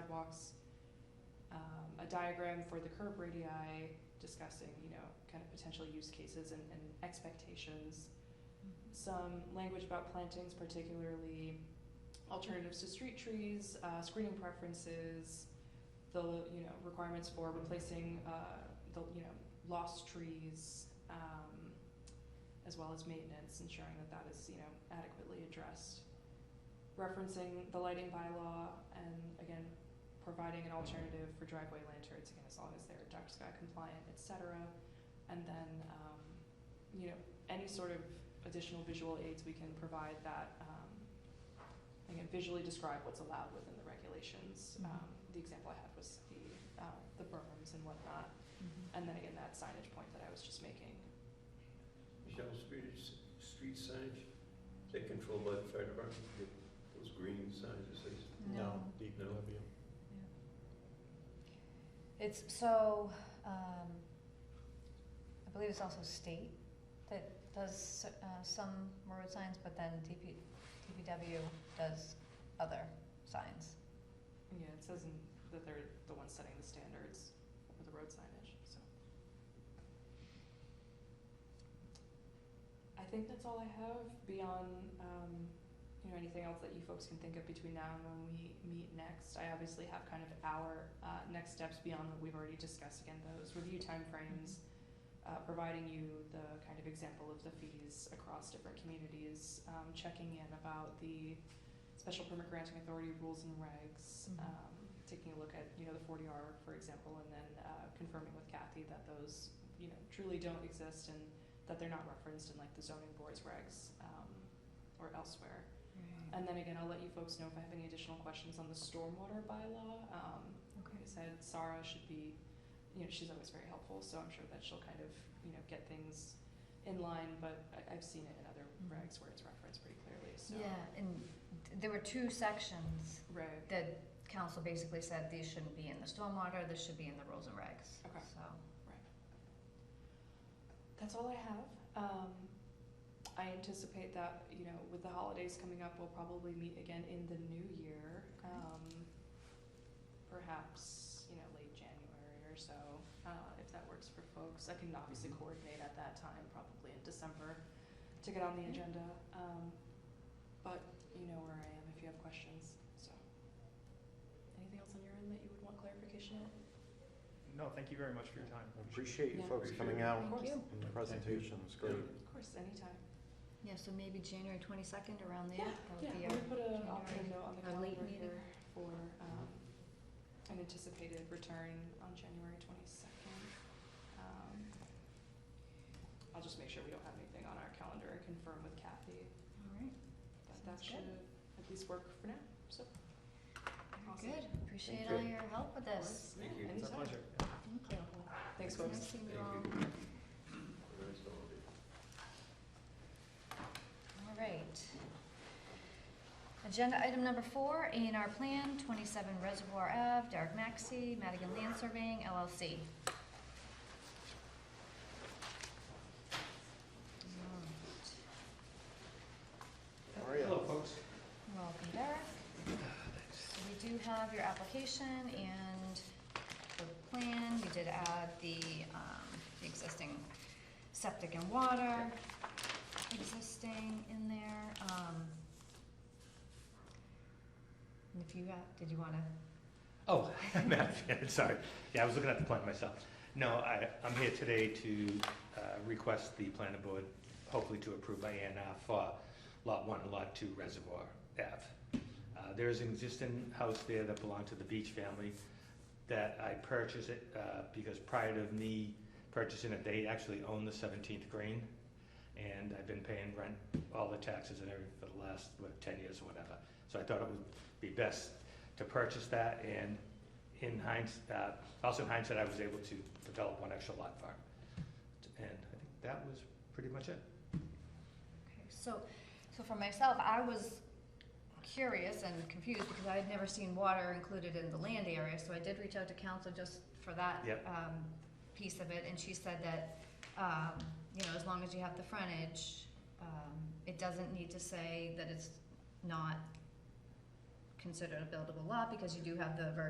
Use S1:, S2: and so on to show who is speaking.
S1: sidewalks, um, a diagram for the curb radii discussing, you know, kind of potential use cases and, and expectations, some language about plantings, particularly alternatives to street trees, uh, screening preferences, the, you know, requirements for replacing, uh, the, you know, lost trees, um, as well as maintenance, ensuring that that is, you know, adequately addressed. Referencing the lighting bylaw and again, providing an alternative for driveway lanterns, again, as long as they're dark sky compliant, et cetera. And then, um, you know, any sort of additional visual aids we can provide that, um, again, visually describe what's allowed within the regulations.
S2: Mhm.
S1: Um, the example I had was the, uh, the berms and whatnot.
S2: Mm-hmm.
S1: And then again, that signage point that I was just making.
S3: Michelle, street, street signage, is that controlled by the fire department? The- Those green signs, is this?
S2: No.
S3: DPW.
S2: It's so, um, I believe it's also state that does, uh, some road signs, but then DP, DPW does other signs.
S1: Yeah, it says in, that they're the ones setting the standards for the road signage, so. I think that's all I have beyond, um, you know, anything else that you folks can think of between now and when we meet next. I obviously have kind of our, uh, next steps beyond what we've already discussed, again, those review timeframes, uh, providing you the kind of example of the fees across different communities, um, checking in about the, special permit granting authority rules and regs,
S2: Mhm.
S1: um, taking a look at, you know, the forty R, for example, and then, uh, confirming with Kathy that those, you know, truly don't exist and that they're not referenced in like the zoning board's regs, um, or elsewhere.
S2: Mm-hmm.
S1: And then again, I'll let you folks know if I have any additional questions on the stormwater bylaw, um, like
S2: Uh, Okay.
S1: I said, Sarah should be, you know, she's always very helpful, so I'm sure that she'll kind of, you know, get things in line, but I, I've seen it in other
S2: Mhm.
S1: regs where it's referenced pretty clearly, so.
S2: Yeah, and th- there were two sections
S1: Right,
S2: that council basically said these shouldn't be in the stormwater, this should be in the rules and regs.
S1: Okay.
S2: So,
S1: That's all I have. Um, I anticipate that, you know, with the holidays coming up, we'll probably meet again in the new year.
S2: Okay.
S1: Um, perhaps, you know, late January or so, uh, if that works for folks. I can obviously
S3: Mhm.
S1: coordinate at that time, probably in December, to get on the
S2: Yeah.
S1: agenda. Um, but you know where I am if you have questions, so. Anything else on your end that you would want clarification on?
S4: No, thank you very much for your time.
S5: Appreciate you
S1: Yeah.
S5: folks coming
S3: Appreciate it.
S5: out
S1: Of
S2: thank
S1: course.
S2: you.
S5: and the presentation, it's great.
S1: Of course, anytime.
S2: Yeah, so maybe January twenty-second around there. that would
S1: Yeah,
S2: be
S1: I'm
S2: our
S1: gonna put a, um, I'll put a
S2: January-
S1: note on the
S2: our late
S1: calendar
S2: meeting.
S1: here for, um, an anticipated return on January twenty-second. Um, I'll just make sure we don't have anything on our calendar and confirm with Kathy,
S2: All right.
S1: but that
S2: Sounds
S1: should
S2: good.
S1: at least work for now, so. Awesome.
S2: Very good. Appreciate
S3: Thank
S2: all
S3: you.
S2: your help with this.
S1: Yeah,
S3: Thank you.
S4: It's a
S1: anytime.
S4: pleasure.
S2: Thank you.
S1: Thanks,
S2: It's nice
S1: folks.
S2: seeing you all.
S3: Thank you. Nice holiday.
S2: All right. Agenda item number four, A and R Plan, 27 Reservoir Ave, Derek Maxey, Madigan Land Surveying LLC. Alright.
S5: How are you?
S4: folks.
S2: Welcome, Derek. So We do have your application and the plan. We did add the, um, the existing septic and water existing in there, um. And if you, uh, did you wanna,
S4: Oh, Matt, yeah, sorry. Yeah, I was looking at the plan myself. No, I, I'm here today to uh, request the planning board, hopefully to approve my A and R for Lot One and Lot Two Reservoir Ave. Uh, There is an existing house there that belonged to the Beach family that I purchased it uh, because prior to me purchasing it, they actually owned the Seventeenth Green. And I've been paying rent, all the taxes and everything for the last, what, ten years or whatever. So I thought it would be best to purchase that, and in hindsight, uh, also in hindsight, I was able to develop one extra lot farm. And I think that was pretty much it.
S2: okay, so, so for myself, I was curious and confused because I had never seen water included in the land area, so I did reach out to council just for that.
S4: Yep.
S2: Um, piece of it, and she said that, um, you know, as long as you have the frontage, um, it doesn't need to say that it's not considered a buildable lot because you do have the verbiage